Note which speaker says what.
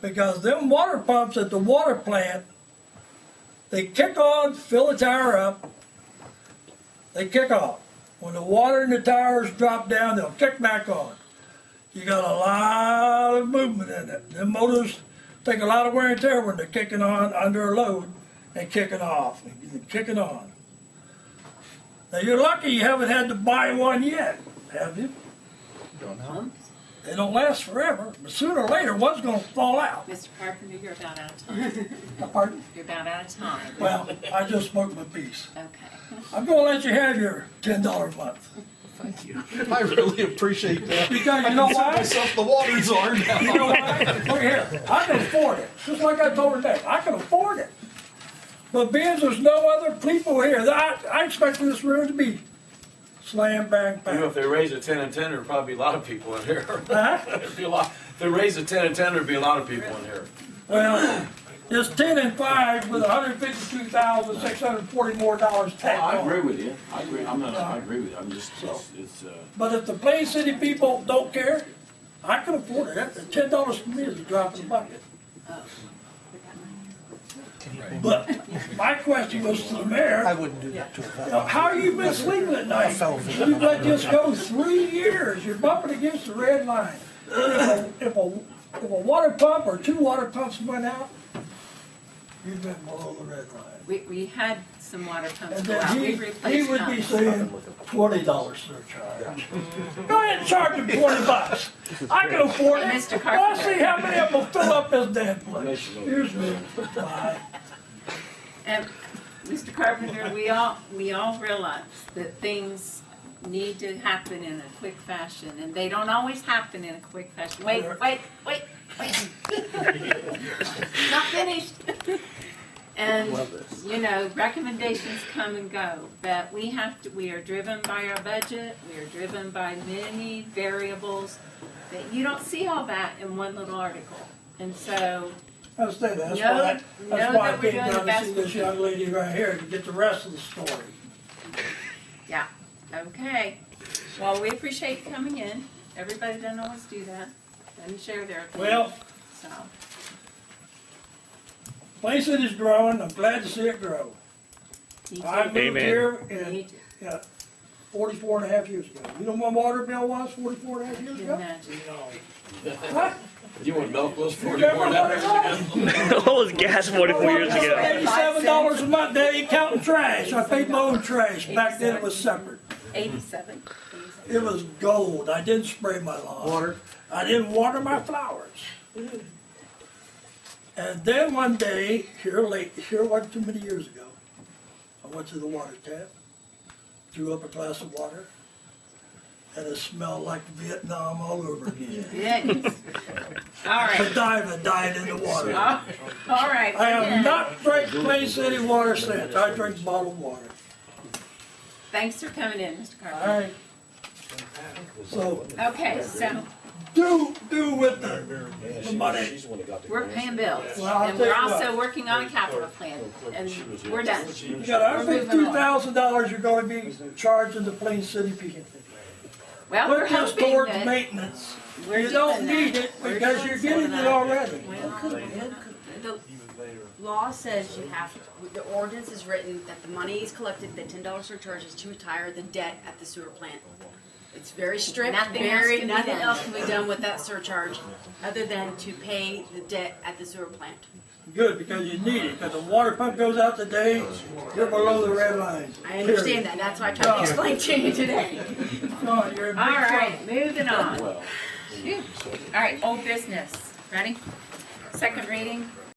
Speaker 1: because them water pumps at the water plant, they kick on, fill the tire up, they kick off. When the water in the tires drop down, they'll kick back on. You got a lot of movement in it. Them motors take a lot of wear and tear when they're kicking on under a load and kicking off and kicking on. Now you're lucky you haven't had to buy one yet, have you?
Speaker 2: Don't know.
Speaker 1: They don't last forever, but sooner or later one's going to fall out.
Speaker 3: Mr. Carpenter, you're about out of time.
Speaker 1: Pardon?
Speaker 3: You're about out of time.
Speaker 1: Well, I just spoke my piece.
Speaker 3: Okay.
Speaker 1: I'm going to let you have your ten dollar a month
Speaker 2: Thank you. I really appreciate that.
Speaker 1: because you know
Speaker 2: Set
Speaker 1: why?
Speaker 2: myself the water czar now.
Speaker 1: You know why? Look here, I can afford it. Just like I told her that, I can afford it. But being there's no other people here, I, I expect this room to be slam bang
Speaker 4: You know, if
Speaker 1: bang.
Speaker 4: they raise a ten and ten, there'd probably be a lot of people in here.
Speaker 1: Huh?
Speaker 4: There'd be a lot, if they raise a ten and ten, there'd be a lot of people in here.
Speaker 1: Well, it's ten and five with hundred fifty-two thousand six hundred forty more dollars tacked
Speaker 5: Oh, I
Speaker 1: on.
Speaker 5: agree with you. I agree. I'm not, I agree with you. I'm just, it's, it's, uh,
Speaker 1: But if the Plain City people don't care, I can afford it. Ten dollars for me is a drop in the bucket. But my question goes to the mayor.
Speaker 6: I wouldn't do that to a
Speaker 1: Now,
Speaker 6: fellow.
Speaker 1: How are you been sleeping at night? You've let this go three years, you're bumping against the red line. If a, if a if a water pump or two water pumps went out, you've been below the red line.
Speaker 3: We, we had some water pumps
Speaker 1: And
Speaker 3: go out.
Speaker 1: then
Speaker 3: We
Speaker 1: he, he
Speaker 3: replaced
Speaker 1: would be
Speaker 3: them.
Speaker 1: saying twenty dollar surcharge.
Speaker 3: Mm-hmm.
Speaker 1: Go ahead and charge him twenty bucks. I can afford it.
Speaker 3: Mr.
Speaker 1: Let's
Speaker 3: Carpenter.
Speaker 1: see how many of them will fill up this damn place. Here's me. Bye.
Speaker 3: And, Mr. Carpenter, we all, we all realize that things need to happen in a quick fashion, and they don't always happen in a quick fashion. Wait, wait, wait, wait. Not finished. And, you know, recommendations come and go, but we have to, we are driven by our budget, we are driven by many variables, that you don't see all that in one little article. And so,
Speaker 1: I say that, that's
Speaker 3: No,
Speaker 1: why,
Speaker 3: no,
Speaker 1: that's why I
Speaker 3: that we're
Speaker 1: came down to see
Speaker 3: doing the best
Speaker 1: this
Speaker 3: we
Speaker 1: young lady right here to get the rest of the story.
Speaker 3: Yeah, okay. Well, we appreciate you coming in. Everybody doesn't always do that, doesn't share their opinion,
Speaker 1: Well,
Speaker 3: so.
Speaker 1: place it is growing, I'm glad to see it grow.
Speaker 3: you two
Speaker 1: I moved
Speaker 7: Amen.
Speaker 1: here in,
Speaker 3: need to-
Speaker 1: yeah, forty-four and a half years ago. You know what my water bill was forty-four and a half years
Speaker 3: you
Speaker 1: ago?
Speaker 3: imagine.
Speaker 1: Huh?
Speaker 4: You want milk was
Speaker 1: You
Speaker 4: forty-four
Speaker 1: remember
Speaker 4: and
Speaker 1: what it was?
Speaker 7: it was gas 44 years ago.
Speaker 1: Eighty-seven dollars a month, they ain't counting trash, I paid my own trash, back then it was separate.
Speaker 3: Eighty-seven.
Speaker 1: It was gold, I didn't spray my lawn.
Speaker 6: Water.
Speaker 1: I didn't water my flowers. And then one day, here late, here wasn't too many years ago, I went to the water tap, drew up a glass of water, and it smelled like Vietnam all over again.
Speaker 3: Yes. All right,
Speaker 1: Godiva died in the water. I
Speaker 3: all all right.
Speaker 1: have
Speaker 3: again,
Speaker 1: not drank Plain City water since. I drink bottled water.
Speaker 3: Thanks for coming in, Mr.
Speaker 1: All
Speaker 3: Carpenter.
Speaker 1: right. So
Speaker 3: Okay, so
Speaker 1: do do with the, the money.
Speaker 3: we're paying bills,
Speaker 1: Well, I'll
Speaker 3: and we're
Speaker 1: tell you
Speaker 3: also working on a capital plan, and we're done.
Speaker 1: You got hundred fifty-two thousand dollars you're gonna be charging the Plain City people.
Speaker 3: Well, we're
Speaker 1: Put this
Speaker 3: hoping
Speaker 1: towards
Speaker 3: that
Speaker 1: maintenance.
Speaker 3: we're
Speaker 1: You don't
Speaker 3: doing that.
Speaker 1: need it
Speaker 3: We're
Speaker 1: because
Speaker 3: doing
Speaker 1: you're getting
Speaker 3: something.
Speaker 1: it already.
Speaker 8: The law says you have, to- the ordinance is written that the money is collected, the ten dollar surcharge is to retire the debt at the sewer plant. It's very strict,
Speaker 3: Nothing else
Speaker 8: very,
Speaker 3: can be
Speaker 8: nothing
Speaker 3: done.
Speaker 8: else can be done with that surcharge, other than to pay the debt at the sewer plant.
Speaker 1: Good, because you need it, because the water pump goes out today, you're below the red line.
Speaker 8: I understand that, and that's why I tried to explain to you today.
Speaker 1: No, you're in big
Speaker 3: All
Speaker 1: trouble.
Speaker 3: right, moving on. Phew. All right, old business, ready? Second reading,